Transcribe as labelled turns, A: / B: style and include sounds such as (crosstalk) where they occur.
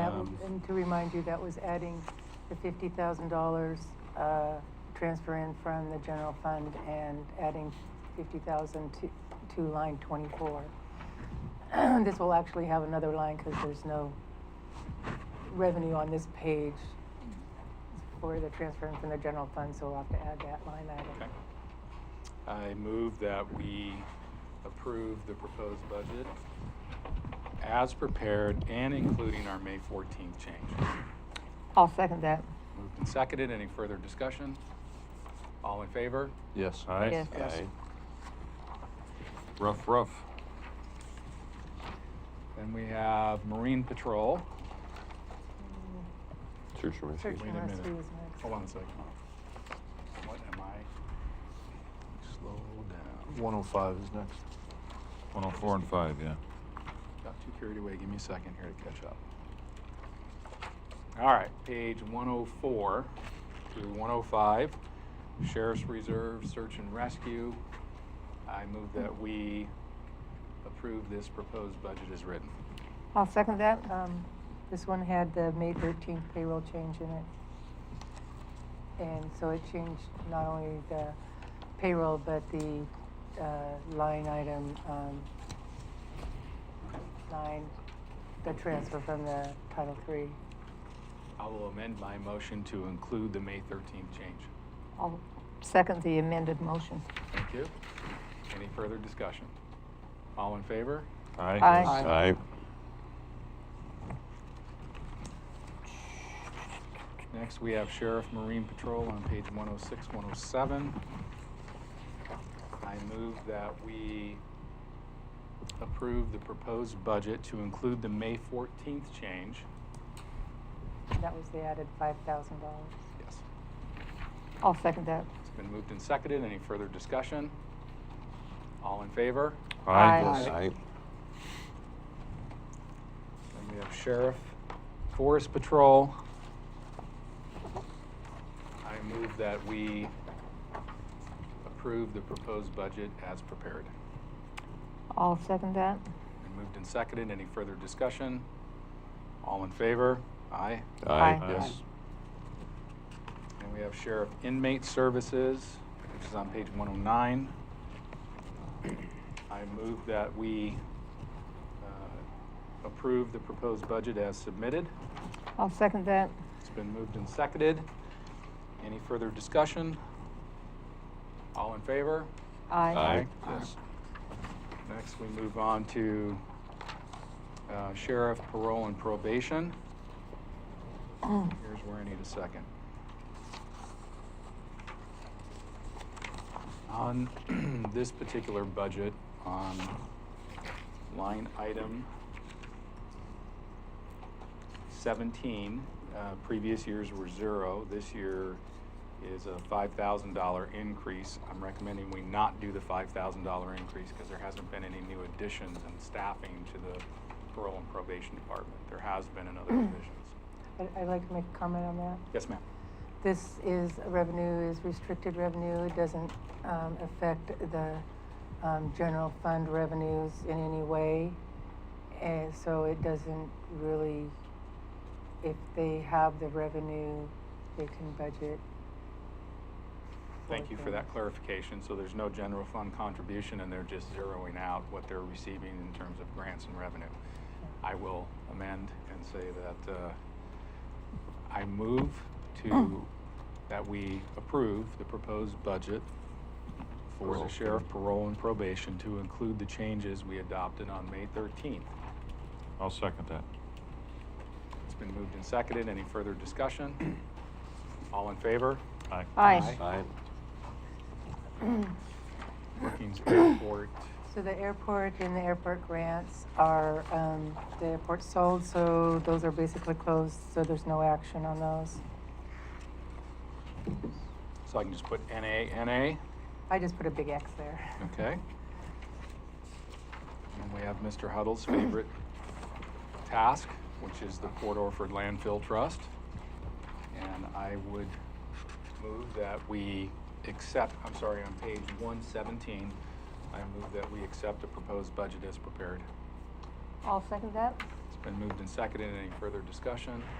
A: Um,
B: And to remind you, that was adding the fifty thousand dollars, uh, transfer in from the general fund and adding fifty thousand to, to line twenty-four. (clears throat) This will actually have another line because there's no revenue on this page for the transfer in from the general fund, so we'll have to add that line
A: Okay.
B: item.
A: I move that we approve the proposed budget as prepared and including our May 14th change.
B: I'll second that.
A: Moved and seconded. Any further discussion? All in favor?
C: Yes.
B: Yes.
C: Aye. Rough, rough.
A: Then we have Marine Patrol.
C: Search and rescue.
B: Search
A: Wait
B: and
A: a minute.
B: rescue is next.
A: Hold on a second. What am I? Slow down.
D: 105 is next.
C: 104 and 5, yeah.
A: Got too carried away. Give me a second here to catch up. All right, page 104 through 105, Sheriff's Reserve Search and Rescue. I move that we approve this proposed budget as written.
B: I'll second that. Um, this one had the May thirteenth payroll change in it. And so it changed not only the payroll, but the, uh, line item, um, line, the transfer from the Title Three.
A: I will amend my motion to include the May 13th change.
B: I'll second the amended motion.
A: Thank you. Any further discussion? All in favor?
C: Aye.
B: Aye.
C: Aye.
A: Next, we have Sheriff Marine Patrol on page 106, 107. I move that we approve the proposed budget to include the May 14th change.
B: That was the added five thousand dollars.
A: Yes.
B: I'll second that.
A: It's been moved and seconded. Any further discussion? All in favor?
B: Aye.
C: Aye.
A: Then we have Sheriff Forest Patrol. I move that we approve the proposed budget as prepared.
B: I'll second that.
A: Been moved and seconded. Any further discussion? All in favor? Aye.
B: Aye.
C: Yes.
A: And we have Sheriff Inmate Services, which is on page 109. I move that we uh, approve the proposed budget as submitted.
B: I'll second that.
A: It's been moved and seconded. Any further discussion? All in favor?
C: Aye.
A: Yes. Next, we move on to uh, sheriff, parole, and probation. Here's where I need a second. On (clears throat) this particular budget, on line item 17, uh, previous years were zero. This year is a $5,000 increase. I'm recommending we not do the $5,000 increase because there hasn't been any new additions and staffing to the parole and probation department. There has been in other divisions.
B: I- I'd like to make a comment on that.
A: Yes, ma'am.
B: This is, revenue is restricted revenue, it doesn't um, affect the um, general fund revenues in any way. And so it doesn't really, if they have the revenue, they can budget.
A: Thank you for that
B: things.
A: clarification. So there's no general fund contribution and they're just zeroing out what they're receiving in terms of grants and revenue. I will amend and say that uh, I move to, that we approve the proposed budget for the
C: Parole.
A: sheriff parole and probation to include the changes we adopted on May 13th.
C: I'll second that.
A: It's been moved and seconded. Any further discussion? All in favor?
C: Aye.
A: Aye.
C: Aye.
A: Brookings Airport.
B: So the airport and the airport grants are, um, the airport sold, so those are basically closed, so there's no action on those.
A: So I can just put NA, NA?
B: I just put a big X there.
A: Okay. And we have Mr. Huddle's favorite task, which is the Port Orford Landfill Trust. And I would move that we accept, I'm sorry, on page 117, I move that we accept the proposed budget as prepared.
B: I'll second that.
A: It's Been moved and seconded. Any further discussion?